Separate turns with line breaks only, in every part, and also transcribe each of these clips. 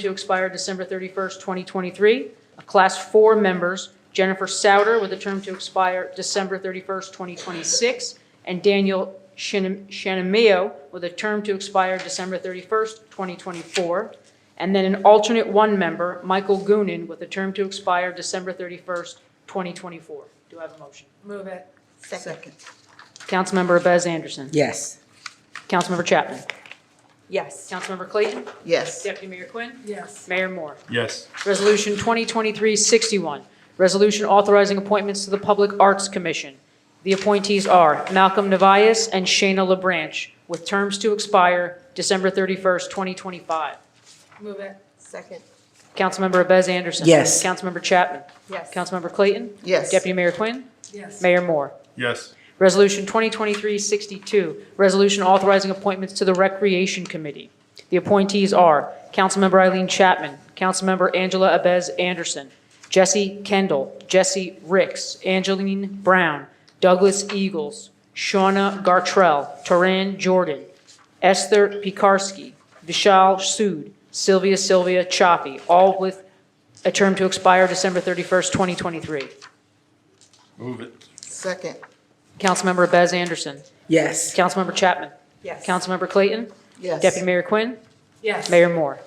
to expire December 31st, 2023. Class 4 members, Jennifer Souter with a term to expire December 31st, 2026, and Daniel Shin- Shinamio with a term to expire December 31st, 2024. And then an alternate 1 member, Michael Goonan, with a term to expire December 31st, 2024. Do I have a motion?
Move it.
Second.
Councilmember Bez Anderson.
Yes.
Councilmember Chapman.
Yes.
Councilmember Clayton.
Yes.
Deputy Mayor Quinn.
Yes.
Mayor Moore.
Yes,
Resolution 2023-61, resolution authorizing appointments to the Public Arts Commission. The appointees are Malcolm Navias and Shayna LaBranch, with terms to expire December 31st, 2025.
Move it.
Second.
Councilmember Abez Anderson.
Yes.
Councilmember Chapman.
Yes.
Councilmember Clayton.
Yes.
Deputy Mayor Quinn.
Yes.
Mayor Moore.
yes,
Resolution 2023-62, resolution authorizing appointments to the Recreation Committee. The appointees are Councilmember Eileen Chapman, Councilmember Angela Abez Anderson, Jesse Kendall, Jesse Ricks, Angeline Brown, Douglas Eagles, Shauna Gartrell, Taran Jordan, Esther Pikarsky, Vishal Sood, Sylvia Sylvia Choppy, all with a term to expire December 31st, 2023.
move it,
Second.
Councilmember Abez Anderson.
Yes.
Councilmember Chapman.
Yes.
Councilmember Clayton.
Yes.
Deputy Mayor Quinn.
Yes.
Mayor Moore.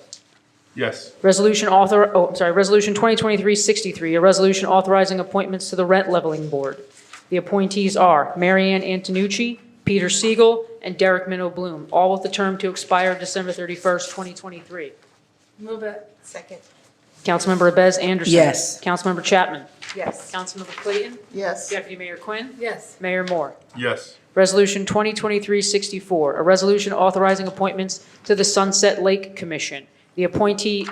yes,
Resolution author, oh, I'm sorry, Resolution 2023-63, a resolution authorizing appointments to the Rent Leveling Board. The appointees are Marianne Antonucci, Peter Siegel, and Derek Minow Bloom, all with the term to expire December 31st, 2023.
Move it.
Second.
Councilmember Abez Anderson.
Yes.
Councilmember Chapman.
Yes.
Councilmember Clayton.
Yes.
Deputy Mayor Quinn.
Yes.
Mayor Moore.
yes,
Resolution 2023-64, a resolution authorizing appointments to the Sunset Lake Commission. The appointee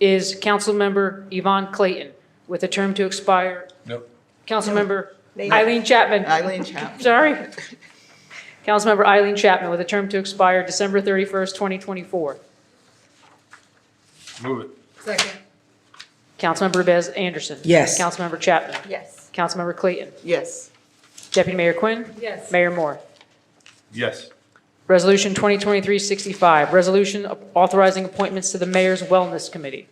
is Councilmember Yvonne Clayton, with a term to expire,
nope,
Councilmember
No.
Eileen Chapman.
Eileen Chapman.
Sorry. Councilmember Eileen Chapman, with a term to expire December 31st, 2024.
move it,
Second.
Councilmember Bez Anderson.
Yes.
Councilmember Chapman.
Yes.
Councilmember Clayton.
Yes.
Deputy Mayor Quinn.
Yes.
Mayor Moore.
yes,
Resolution 2023-65, resolution authorizing appointments to the Mayor's Wellness Committee.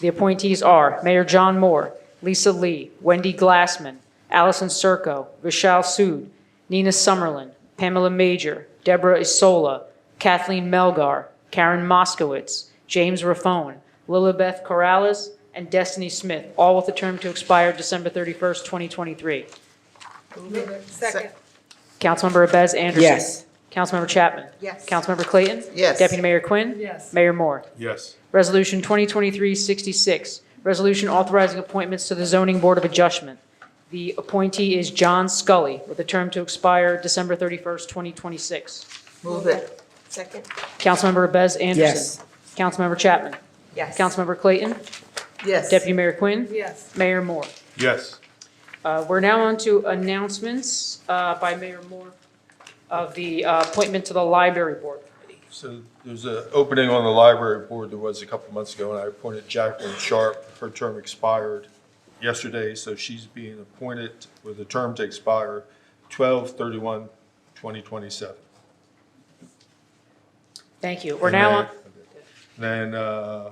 The appointees are Mayor John Moore, Lisa Lee, Wendy Glassman, Allison Circo, Vishal Sood, Nina Summerlin, Pamela Major, Deborah Isola, Kathleen Melgar, Karen Moskowitz, James Raffone, Lilibeth Corrales, and Destiny Smith, all with a term to expire December 31st, 2023.
Move it. Second.
Councilmember Abez Anderson.
Yes.
Councilmember Chapman.
Yes.
Councilmember Clayton.
Yes.
Deputy Mayor Quinn.
Yes.
Mayor Moore.
yes,
Resolution 2023-66, resolution authorizing appointments to the Zoning Board of Adjustment. The appointee is John Scully, with a term to expire December 31st, 2026.
Move it.
Second.
Councilmember Abez Anderson.
Yes.
Councilmember Chapman.
Yes.
Councilmember Clayton.
Yes.
Deputy Mayor Quinn.
Yes.
Mayor Moore.
yes,
Uh, We're now on to announcements uh, by Mayor Moore of the uh, appointment to the Library Board.
So there's an opening on the library board that was a couple months ago, and I appointed Jacqueline Sharp. Her term expired yesterday, so she's being appointed with a term to expire 12/31/2027.
Thank you. We're now on,
And Then uh,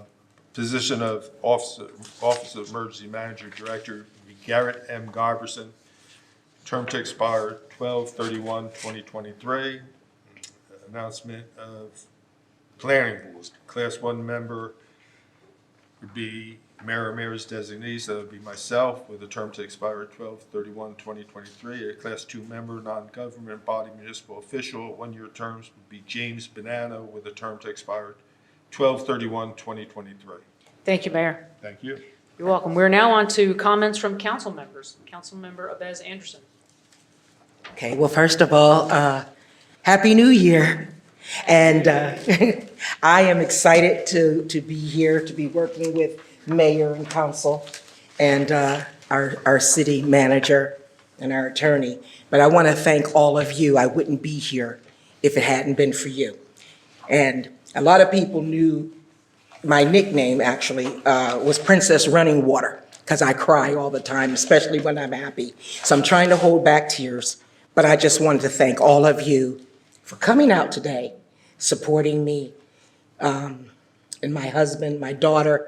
position of Office Office of Emergency Manager Director Garrett M. Giverson, term to expire 12/31/2023. Announcement of Planning Board, Class 1 member would be mayor or mayor's designees, that would be myself, with a term to expire 12/31/2023. A Class 2 member, non-government body municipal official, one-year terms would be James Banana, with a term to expire 12/31/2023.
thank you, Mayor.
Thank you.
You're welcome. We're now on to comments from council members. Councilmember Abez Anderson.
Okay, well, first of all, uh, Happy New Year. And uh, I am excited to, to be here, to be working with mayor and council and uh, our, our city manager and our attorney. But I want to thank all of you. I wouldn't be here if it hadn't been for you. And a lot of people knew my nickname actually uh, was Princess Running Water because I cry all the time, especially when I'm happy. So I'm trying to hold back tears, but I just wanted to thank all of you for coming out today, supporting me, um, and my husband, my daughter,